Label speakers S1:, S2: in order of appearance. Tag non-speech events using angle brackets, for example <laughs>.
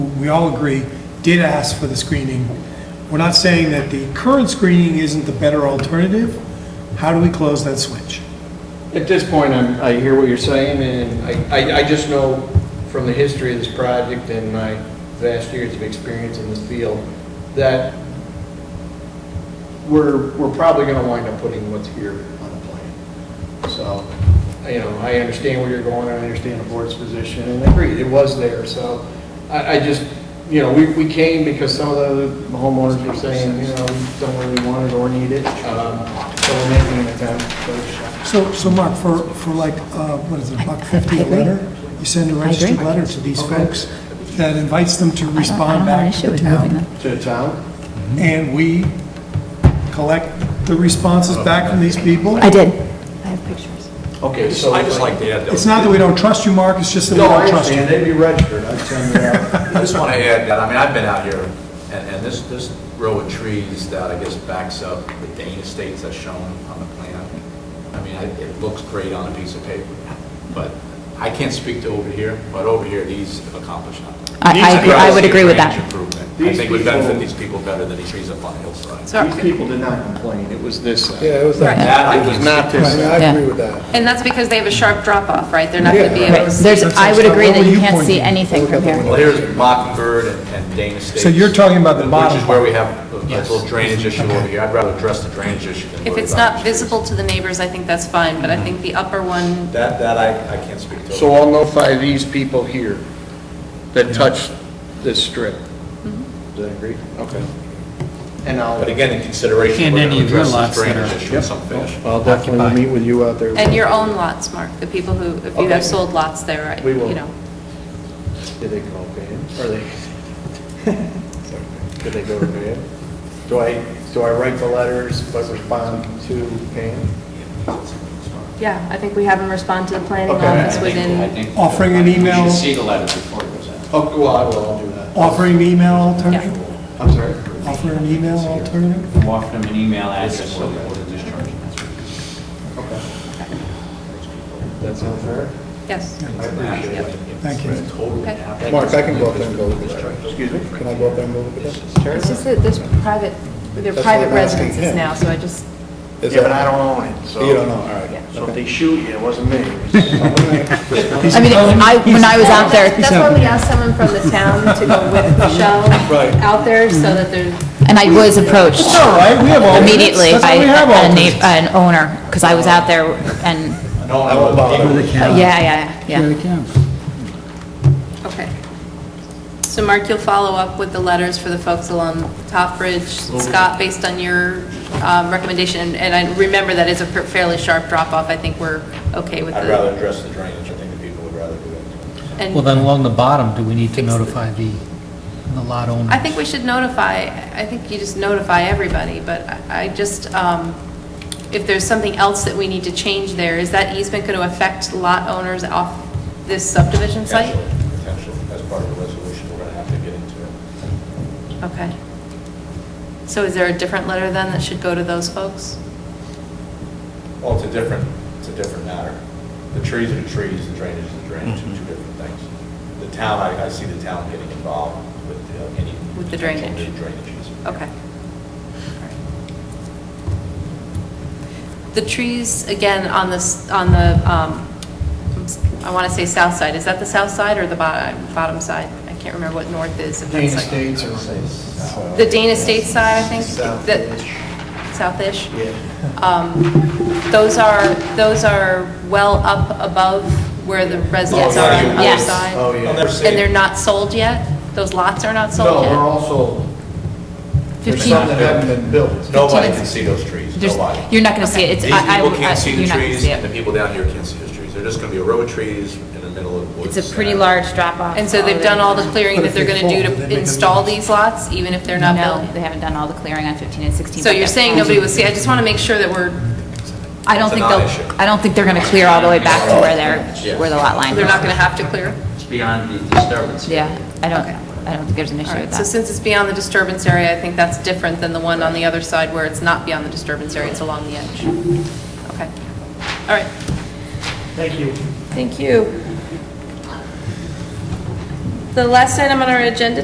S1: we all agree, did ask for the screening. We're not saying that the current screening isn't the better alternative. How do we close that switch?
S2: At this point, I'm, I hear what you're saying, and I, I, I just know from the history of this project and my vast years of experience in this field, that we're, we're probably gonna wind up putting what's here on the plan. So, you know, I understand where you're going, I understand the board's position, and I agree, it was there, so I, I just, you know, we, we came because some of the homeowners were saying, you know, we don't really want it or need it, um, so we're making an attempt, but
S1: So, so Mark, for, for like, uh, what is it, a buck fifty a
S3: agree.
S1: letter? You send a registered
S3: agree.
S1: letter to these
S2: Okay.
S1: folks that invites them to
S3: I don't-
S1: respond back
S3: I
S1: to the
S3: don't have an issue with
S1: town.
S3: moving them.
S2: To the town?
S1: And we collect the responses back from these people.
S3: I did. I have pictures.
S2: Okay, so.
S4: I just like to add, though,
S1: It's not that we don't trust you, Mark, it's just that we
S2: No, I
S1: don't trust
S2: understand,
S1: you.
S2: they'd be registered, I'd send it out. <laughs>
S4: I just want to add that, I mean, I've been out here, and, and this, this row of trees that I guess backs up the Dane Estates that's shown on the plan, I mean, I- it looks great on a piece of paper, but I can't speak to over here, but over here, these have accomplished nothing.
S3: I- I agree- I would agree with that.
S4: These are great improvement. I
S2: These
S4: think we benefit
S2: people-
S4: these people better than these trees up on the hillside.
S5: So-
S2: These people did not complain, it was this uh, side.
S6: Yeah, it was that.
S4: That I
S2: It was
S4: can
S2: not
S4: not.
S2: this side.
S6: I
S3: Yeah.
S6: agree with that.
S5: And that's because they have a sharp drop-off, right? They're not going to be
S3: Right,
S5: able to...
S3: there's,
S1: That's
S3: I would
S1: what-
S3: agree
S1: what
S3: that
S1: were
S3: you
S1: you
S3: can't see
S1: pointing?
S3: anything from here.
S4: Well, here's Mockingbird and- and Dane Estates.
S1: So you're talking about the bottom
S4: Which is where we have a a little drainage issue over here. I'd rather address the drainage issue than
S5: If
S4: worry
S5: it's
S4: about
S5: not
S4: the trees.
S5: visible to the neighbors, I think that's fine, but I think the upper one,
S4: That, that I, I can't speak to.
S2: So I'll notify these people here that touched this strip.
S6: Mm-hmm.
S2: Does that agree? Okay. And
S4: But
S2: I'll,
S4: again, in consideration,
S7: And
S4: we're going
S7: any
S4: to
S7: of your
S4: address this
S7: lots that
S4: drainage
S7: are-
S4: issue in some fashion.
S2: I'll definitely meet with you out there.
S5: and your own lots, Mark, the people who, if you
S2: Okay.
S5: have sold lots there, right?
S2: We will.
S5: you know.
S2: Did they call Van? Or they? <laughs> Did they go to Van? Do I, do I write the letters but respond to Van?
S5: Yeah, I think we have them respond to the planning
S2: Okay.
S5: office within,
S1: Offering an email.
S4: the letters before it goes out.
S2: Oh, well, I will, I'll do that.
S1: Offering an email alternative?
S2: I'm sorry?
S1: Offer an email alternative?
S8: I'm offering them an email address so they order discharge.
S2: That sound fair?
S5: yes.
S2: I appreciate it.
S1: Thank you.
S5: Okay.
S6: Mark, I can go up there and go look at that. Excuse me? Can I go up there and go look at that?
S2: Sure.
S5: It's just that there's private, they're
S6: That's what
S5: private
S6: I'm private asking residences
S5: residences
S6: him.
S5: now,
S6: now,
S5: so I just,
S6: Is
S2: Yeah,
S6: that-
S2: but I don't own it, so.
S6: You don't know, all right.
S2: So if they shoot you, it wasn't <laughs> me. it was someone else.
S3: I mean, I, when I was out there,
S5: that's why we asked someone from the town to go with Michelle
S2: Right.
S5: out there, so that there's,
S3: and I was approached
S1: It's all right, we have alternates.
S3: immediately
S1: That's
S3: by
S1: why we have
S3: a
S1: alternates.
S3: na- an owner, because I was out there, and,
S4: No,
S6: I won't bother.
S3: yeah, yeah, yeah.
S5: okay. So Mark, you'll follow up with the letters for the folks along Top Bridge, Scott, based on your um, recommendation, and I remember that it's a fairly sharp drop-off, I think we're okay with the...
S4: I'd rather address the drainage, I think the people would rather do it.
S5: and-
S7: Well, then along the bottom, do we need to
S5: Fix the-
S7: notify the, the lot owner?
S5: I think we should notify, I think you just notify everybody, but I I just, um, if there's something else that we need to change there, is that easement going to affect lot owners off this subdivision site?
S4: Potentially, potentially, as part of the resolution, we're going to have to get into it.
S5: Okay. So is there a different letter then that should go to those folks?
S4: Well, it's a different, it's a different matter. The trees are the trees, the drainage is the drainage, two different things. The town, I, I see the town getting involved with uh, any.
S5: With the
S4: potential
S5: drainage.
S4: new Drainages.
S5: Okay. The trees, again, on this, on the, um, I want to say south side, is that the south side or the bottom, bottom side? I can't remember what north is. if that's
S2: Dana
S5: like-
S2: States or.
S5: The Dana State side, I think, that,
S2: South-ish.
S5: southish.
S2: Yeah.
S5: Those are, those are well up above where the residents
S4: Oh,
S5: are
S4: yeah,
S5: on the
S4: yeah.
S5: other
S3: Yes.
S4: Oh,
S5: side.
S4: yeah. I'll never see
S5: And
S4: it.
S5: they're not sold yet? Those lots are not
S2: No,
S5: sold
S2: we're
S5: yet?
S2: also, there's some that
S5: Fifteen,
S2: haven't been built.
S4: Nobody can see those trees,
S3: There's,
S4: nobody.
S3: you're not gonna see it, it's,
S4: These
S3: I, I,
S4: people can't see
S3: you're
S4: the
S3: not gonna
S4: trees,
S3: see
S4: and the
S3: it.
S4: people down here can't see those trees. They're just going to be a row of trees in the middle of woods.
S3: It's a pretty large drop-off.
S5: and so they've done all the clearing that they're going to do to install these lots, even if they're not
S3: No, they
S5: built?
S3: haven't done all the clearing on 15 and 16.
S5: So
S3: but
S5: you're
S3: they're
S5: saying
S3: planning
S5: nobody will see, I just want to make sure that we're,
S3: I don't
S4: It's
S3: think
S4: a
S3: they'll,
S4: non-issue.
S3: I don't think they're going to clear all the way back to where they're, where the lot line is.
S5: they're not going to have to clear?
S8: It's beyond the disturbance.
S3: Yeah, I don't,
S5: Okay.
S3: I don't think there's an issue
S5: All
S3: with
S5: right, so
S3: that.
S5: since it's beyond the disturbance area, I think that's different than the one on the other side where it's not beyond the disturbance area, it's along the edge. Okay, all right. Thank you. Thank you. The last item on our agenda